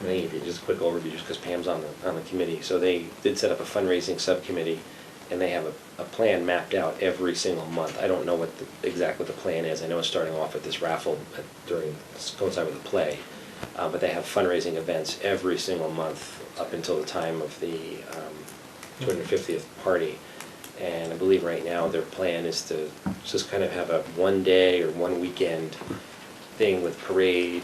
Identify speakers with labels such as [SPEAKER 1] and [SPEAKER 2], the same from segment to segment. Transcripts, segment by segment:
[SPEAKER 1] I think if you just quick overview, just because Pam's on the, on the committee, so they did set up a fundraising subcommittee, and they have a, a plan mapped out every single month. I don't know what the, exactly what the plan is, I know it's starting off at this raffle at- during, coincide with the play, uh, but they have fundraising events every single month up until the time of the, um, two hundred fiftieth party. And I believe right now their plan is to just kind of have a one day or one weekend thing with parade,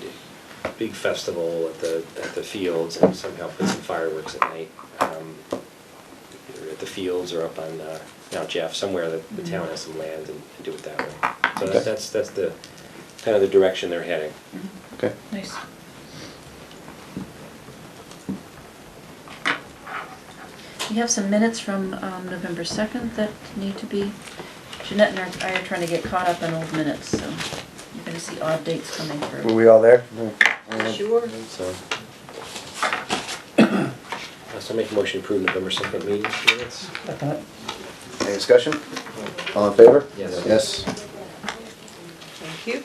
[SPEAKER 1] big festival at the, at the fields and somehow put some fireworks at night. um, Either at the fields or up on uh, Mount Jeff, somewhere that the town has some land and and do it that way. So
[SPEAKER 2] Okay.
[SPEAKER 1] that- that's, that's the, kind of the direction they're heading.
[SPEAKER 2] Okay.
[SPEAKER 3] Nice. We have some minutes from um, November 2nd that need to be, Jeanette and I are trying to get caught up on old minutes, so you're gonna see odd dates coming
[SPEAKER 2] Were
[SPEAKER 3] through.
[SPEAKER 2] we all there?
[SPEAKER 3] Sure.
[SPEAKER 1] So. Uh, So I make a motion to approve November second meeting minutes.
[SPEAKER 2] Any discussion? All in favor?
[SPEAKER 1] Yes.
[SPEAKER 2] Yes.
[SPEAKER 4] Thank you.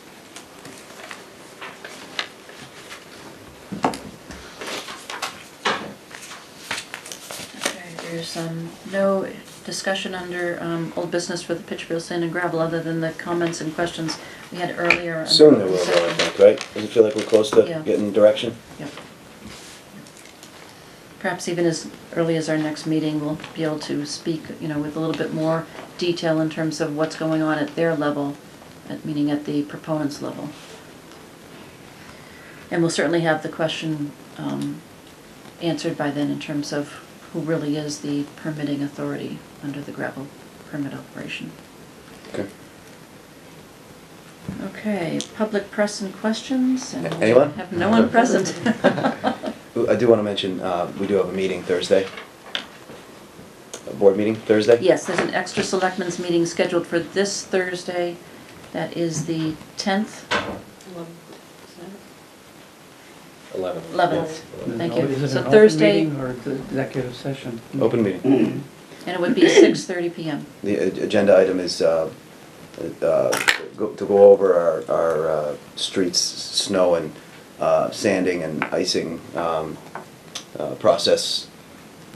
[SPEAKER 3] Okay, there's um, no discussion under um, old business for the Pittsfield Sand and Gravel, other than the comments and questions we had earlier. under
[SPEAKER 2] Soon there will be, I
[SPEAKER 3] open session.
[SPEAKER 2] think, right? Does it feel like we're close to
[SPEAKER 3] Yeah.
[SPEAKER 2] getting direction?
[SPEAKER 3] Yep. Perhaps even as early as our next meeting, we'll be able to speak, you know, with a little bit more detail in terms of what's going on at their level, at- meaning at the proponents' level. And we'll certainly have the question um, answered by then in terms of who really is the permitting authority under the gravel permit operation.
[SPEAKER 2] Okay.
[SPEAKER 3] Okay, public press and questions? and we
[SPEAKER 2] Anyone?
[SPEAKER 3] Have no one present.
[SPEAKER 2] Ooh, I do want to mention, uh, we do have a meeting Thursday. A board meeting Thursday?
[SPEAKER 3] Yes, there's an extra selectmen's meeting scheduled for this Thursday. That is the 10th,
[SPEAKER 1] Eleven.
[SPEAKER 3] 11th.
[SPEAKER 1] Yeah.
[SPEAKER 3] Thank
[SPEAKER 5] Is
[SPEAKER 3] you.
[SPEAKER 5] it
[SPEAKER 3] So
[SPEAKER 5] an open
[SPEAKER 3] Thursday,
[SPEAKER 5] meeting or the executive session?
[SPEAKER 2] Open meeting.
[SPEAKER 3] and it would be 6:30 PM.
[SPEAKER 2] The a- agenda item is, uh, uh, go- to go over our, our, uh, streets, s- snow and, uh, sanding and icing, um, uh, process,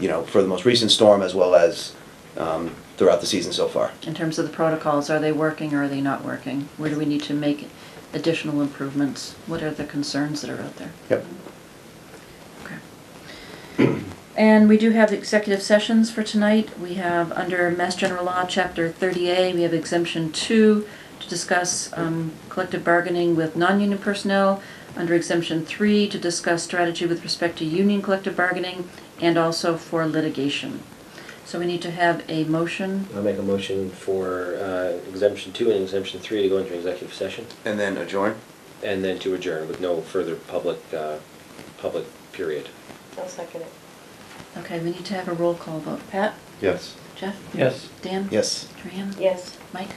[SPEAKER 2] you know, for the most recent storm as well as, um, throughout the season so far.
[SPEAKER 3] In terms of the protocols, are they working or are they not working? Where do we need to make additional improvements? What are the concerns that are out there?
[SPEAKER 2] Yep.
[SPEAKER 3] Okay. And we do have executive sessions for tonight. We have, under Mass General Law, Chapter 30A, we have exemption two to discuss um, collective bargaining with non-union personnel. Under exemption three, to discuss strategy with respect to union collective bargaining and also for litigation. So we need to have a motion.
[SPEAKER 1] I'll make a motion for uh, exemption two and exemption three to go into executive session,
[SPEAKER 2] And then adjourn?
[SPEAKER 1] and then to adjourn with no further public, uh, public period.
[SPEAKER 4] I'll second it.
[SPEAKER 3] Okay, we need to have a roll call vote. Pat?
[SPEAKER 2] Yes.
[SPEAKER 3] Jeff?
[SPEAKER 5] Yes.
[SPEAKER 3] Dan?
[SPEAKER 2] Yes.
[SPEAKER 3] Joanne?
[SPEAKER 4] Yes.
[SPEAKER 3] Mike?